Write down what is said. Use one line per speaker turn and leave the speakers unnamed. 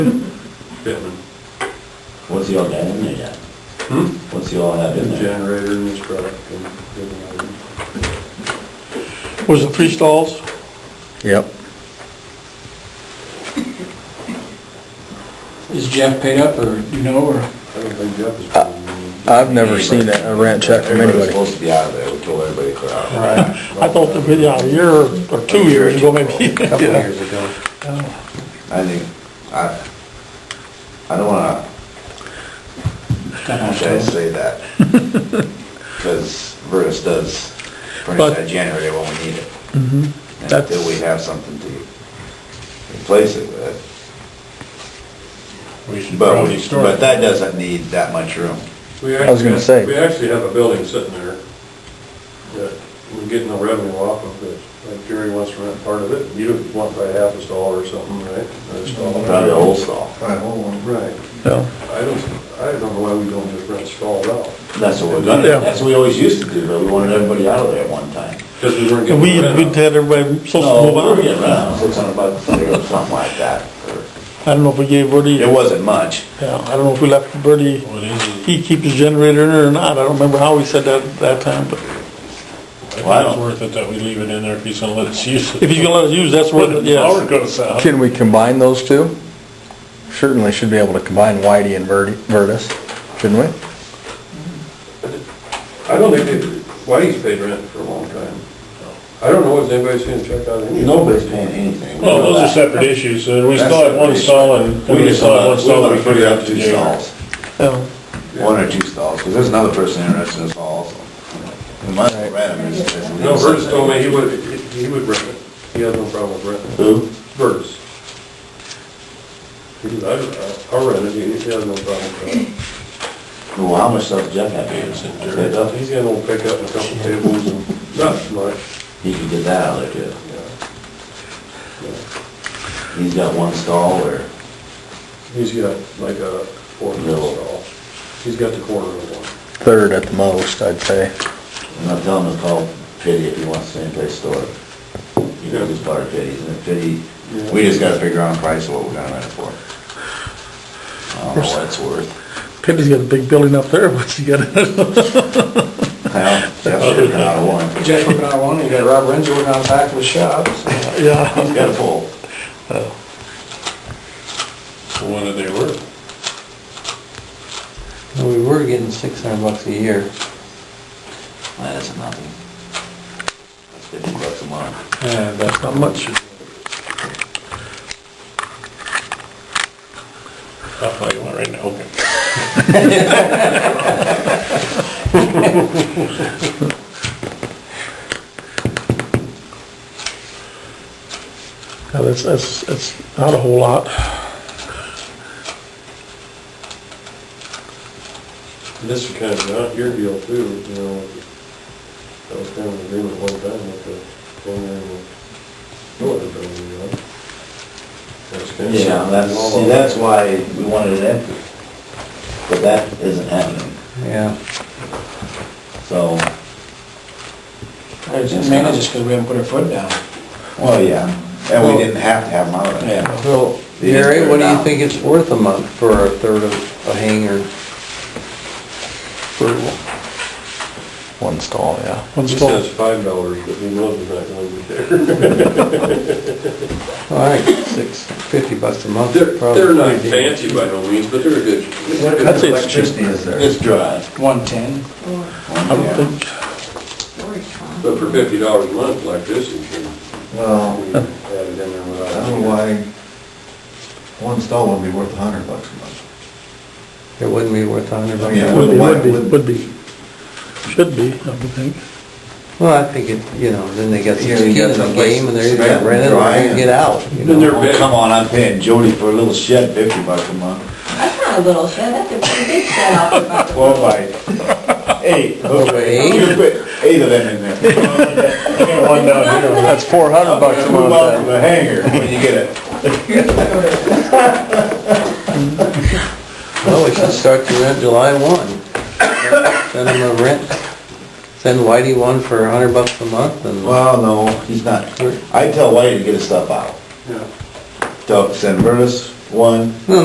Pittman.
What's he all got in there yet?
Hmm?
What's he all have in there?
Generator in his truck and everything like that.
Was it three stalls?
Yep.
Is Jeff paid up, or do you know, or?
I don't think Jeff is. paying me.
I've never seen a a rent check from
Everybody's
anybody.
supposed to be out of there, we told everybody clear out.
I thought that, yeah, a year or two years ago, maybe.
A Couple years ago.
I think, I, I don't wanna, how should I say that? Cause Vertus does furnish
But-
that generator when we need it.
Mm-hmm.
And
That's-
Until we have something to replace it with.
We should
But, we-
probably start.
but that doesn't need that much room.
We
I was gonna
actually-
say.
We actually have a building sitting there that we're getting no revenue off of, but like Jerry wants to rent part of it. You don't want to buy half a stall or something, right? Or a stall.
Probably the whole stall.
Buy a whole one.
Right.
Yeah.
I don't, I don't know why we don't just rent stalls out,
That's what we're
Yeah.
gonna, that's what we always used to do, but we wanted everybody out of there at one time.
because we weren't
And
getting
we,
the
we'd
rent.
had everybody
No,
supposed to move
we were
on.
getting around six hundred bucks a year or something like that. or-
I don't know if we gave Bertie,
It
yeah,
wasn't much.
I don't know if we left Bertie,
What is it?
he keeps his generator in there or not. I don't remember how we said that at that time, but
Well,
I
I
think
don't-
it's worth it that we leave it in there if he's gonna let us use it.
if he's gonna let us use, that's
When
worth it,
the
yes.
power goes out.
Can we combine those two? Certainly should be able to combine Whitey and Verdi- Vertus, shouldn't we?
I don't think, they- Whitey's paid rent for a long time. I don't know if anybody's seen a check out of any.
Nobody's paying anything. We
Well,
know
those are
that.
separate issues, and we
That's
still have one
separate
stall and, and
We
we
just
still have
want
one
to, we
stall that
want
we
to figure out two
together.
stalls,
Yeah.
one or two stalls, because there's another person interested in this hall also. We must rent them. it's- it's-
No, Burtis told me he would, he would rent it. He had no problem with renting.
Who?
Burtis. He said, I, I rent it, he he has no problem with
Well, how much stuff Jeff had here?
that. Jerry, uh, He's got an old pickup and a couple tables and not much.
He could get that out of there too. He's got one stall where,
He's got like a four-foot
No.
stall. He's got the corner of one.
Third at the most, I'd say.
I'm not telling him to call Pitty if he wants any place to store it. You know, just part of Pitty's, and if Pitty, we just gotta figure out a price of what we're gonna rent it for. I don't know what it's worth.
Pitty's got a big building up there, what's he got in it?
Well, Jeff's working out of one.
Jeff's working on one, you got Rob Renzo working on the back of his shop, so.
Yeah,
He's got a pole.
So What do they worth?
We were getting six hundred bucks a year.
That isn't nothing. That's fifty bucks a month.
Yeah, but
not much.
I'll tell you one right now, okay.
Yeah, that's, that's, that's not a whole lot.
And this is kind of not your deal too, you know. That was kind of an agreement one time with the owner and the builder, you know. That's kind of-
Yeah, that's, see, that's why we wanted it empty. But that isn't happening,
Yeah.
so,
It's just mainly just because we haven't put our foot down.
well, yeah, and we didn't have to have them out of there.
Well,
You just put
Gary,
it
what do
down.
you think it's worth a month for a third of a hanger?
One stall, yeah.
One
He
stall.
says five dollars, but he knows it's not gonna be there.
All right, six, fifty bucks a month.
They're,
probably.
they're not fancy by no means, but they're a good.
That's it, it's cheap.
is there? It's dry.
One-ten.
or
I would think,
storage farm.
But for fifty dollars a month like this, you can
Well,
add it in there without.
why one stall would be worth a hundred bucks a month.
It wouldn't be worth a hundred bucks.
Yeah.
would be, would be, would be. Should be, I would think.
Well, I think it, you know, then they got some
Yeah,
skin
you
in
got
the
someplace
game and they're
to
either rent it or
dry
they
and-
get out, you
Then
know?
they're big.
oh, Come on, I'm paying Jody for a little shed fifty bucks a month.
That's not a little shed, that's a pretty big shed off the back.
Twelve by eight.
Okay.
You put Eight of them in there.
I got one down here.
That's four hundred bucks a
Move on
month.
from the hanger when you get it.
Well, we should start to rent July one. Send them a rent, send Whitey one for a hundred bucks a month and.
Well, no, he's not. I tell Whitey to get his stuff out.
Yeah.
Tell San Verdes, one